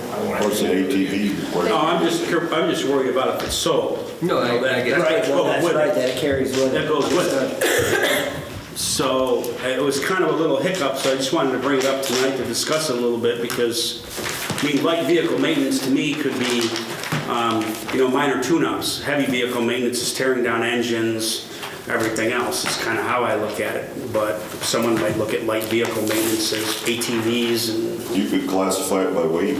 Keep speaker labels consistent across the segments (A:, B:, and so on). A: Of course, the ATV requires.
B: No, I'm just, cur- I'm just worried about if it's sold.
C: No, I-
B: You know, that-
C: I get it.
B: that
D: Right,
B: goes
D: well, that's
B: with it.
D: right, that carries with it.
B: That goes with it. So it was kind of a little hiccup, so I just wanted to bring it up tonight to discuss it a little bit because, I mean, light vehicle maintenance to me could be, um, you know, minor tune-ups. Heavy vehicle maintenance is tearing down engines, everything else. It's kind of how I look at it. But someone might look at light vehicle maintenance as ATVs and,
A: You could classify it by weight.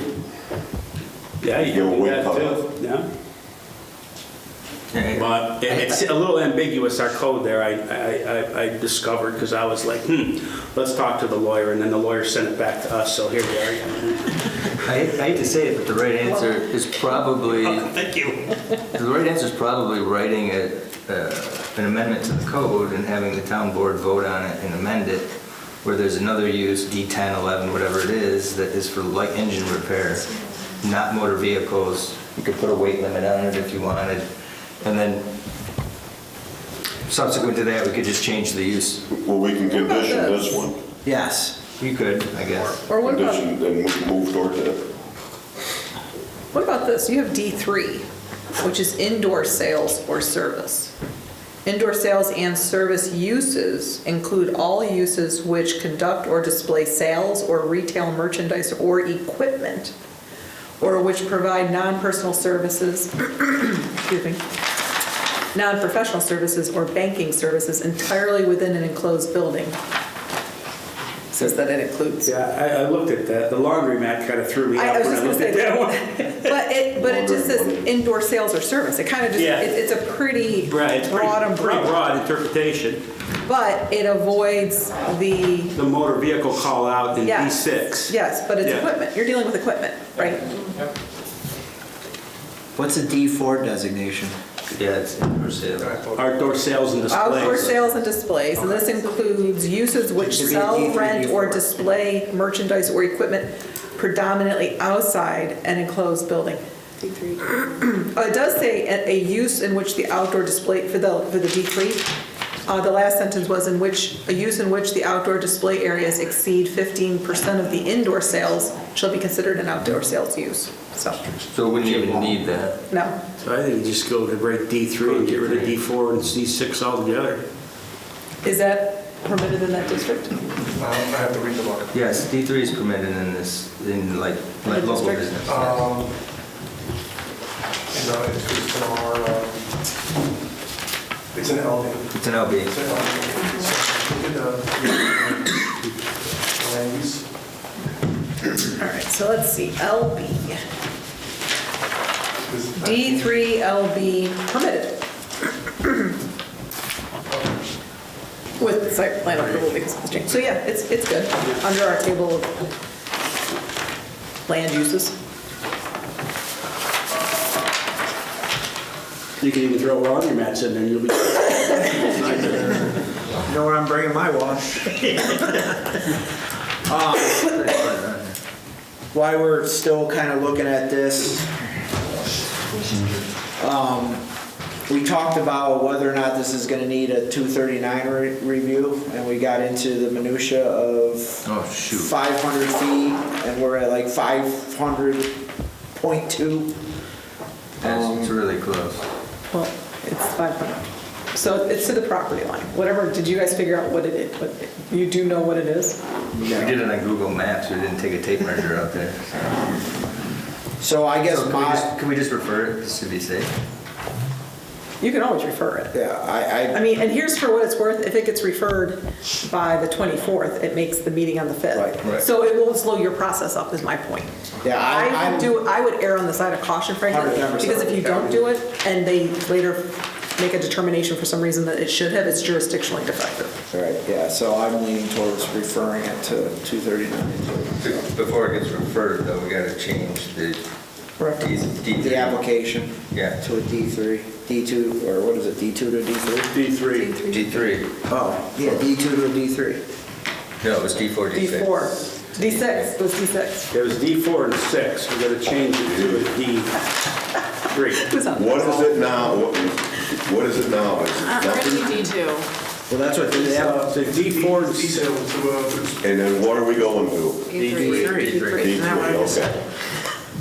B: yeah, you
A: Your
B: can do
A: weight
B: that
A: cut.
B: too. Yeah.
C: Yeah.
B: But it- it's a little ambiguous, our code there, I, I- I, I discovered, because I was like, hmm, let's talk to the lawyer, and then the lawyer sent it back to us, so here we are.
C: I hate I hate to say it, but the right answer is probably,
B: Thank you.
C: the right answer is probably writing a, uh, an amendment to the code and having the town board vote on it and amend it, where there's another use, D10, 11, whatever it is, that is for light engine repair, not motor vehicles. You could put a weight limit on it if you wanted. And then subsequent to that, we could just change the use.
A: Well, we can condition
E: about
A: this one,
C: Yes. You could, I guess.
E: Or what about,
A: condition and mo- move towards it.
E: what about this? You have D3, which is indoor sales or service. Indoor sales and service uses include all uses which conduct or display sales or retail merchandise or equipment, or which provide non-personal services, excuse me, non-professional services or banking services entirely within an enclosed building. Says that it includes.
B: Yeah, I, I looked at that, the laundromat kind of threw me
E: I- I
B: out
E: was
B: when I looked
E: just gonna
B: at that
E: say that.
B: one.
E: But it, but it just says
A: Wondering.
E: indoor sales or service. It kind of just,
B: Yeah.
E: it- it's a pretty
B: Right, it's pretty,
E: broad
B: pretty
E: umbrella.
B: broad interpretation,
E: But it avoids the,
B: the motor vehicle call out in
E: Yeah.
B: D6.
E: yes, but it's
B: Yeah.
E: equipment. You're dealing with equipment, right?
F: What's a D4 designation?
C: Yeah, it's indoor sale.
B: Outdoor sales and displays.
E: Outdoor sales and displays, and this includes uses which
F: Should be
E: sell,
F: D3,
E: rent, or
F: D4.
E: display merchandise or equipment predominantly outside an enclosed building. Uh, It does say a, a use in which the outdoor display, for the, for the D3, uh, the last sentence was in which, a use in which the outdoor display areas exceed 15% of the indoor sales shall be considered an outdoor sales use. So,
C: So we wouldn't even need that.
E: no.
B: So I think you just go to rate D3 and get rid of D4 and D6 altogether.
E: Is that permitted in that district?
G: Um, I have to read the book.
C: Yes, D3 is permitted in this, in like, like
E: the
C: local
E: district?
C: business. yeah.
G: Um, You know, it's it's in our, um, it's an LD.
C: It's an LB.
G: It's an LD. So, Look at the the land use.
E: All right, so let's see, LB.
G: This-
E: D3LB permitted. With site plan approval because of the change. So yeah, it's, it's good, under our table of land uses.
B: You can even throw laundromats in there, you'll be.
F: You know where I'm bringing my wash? Um, While we're still kind of looking at this, um, we talked about whether or not this is going to need a 239 re- review, and we got into the minutia of
C: Oh, shoot.
F: 500 feet, and we're at like 500.2.
C: That's it's really close.
E: Well, it's 500. So it's to the property line, whatever, did you guys figure out what it is? What- You do know what it is?
C: We did it on Google Maps, we didn't take a tape measure out there.
F: So I guess
C: So can we
F: my,
C: just, can we just refer it, just to be safe?
E: You can always refer it.
F: yeah, I, I
E: I mean, and here's for what it's worth, if it gets referred by the 24th, it makes the meeting on the 5th.
F: Right,
C: right.
E: So it will slow your process up, is my point.
F: Yeah, I-
E: I would
F: I'm-
E: do, I would err on the side of caution, frankly,
F: 100%.
E: because if you don't do it, and they later make a determination for some reason that it should have, it's jurisdictionally defective.
F: All right, yeah, so I'm leaning towards referring it to 239,
C: Before it gets referred though, we gotta change the D3.
F: the application.
C: Yeah.
F: To a D3, D2, or what is it, D2 to D3?
B: D3.
C: D3,
F: Oh, yeah, D2 to D3.
C: no, it was D4, D6.
E: D4, D6, it was D6.
B: It was D4 and 6, we're gonna change it to a D3.
E: Who's on?
A: What is it now? What what is it now? Is it
E: Uh,
A: nothing?
H: D2.
F: Well, that's what the app-
B: So D4 and
G: Detail to, uh, to
A: And then what are we going to?
H: D3.
A: D3, okay.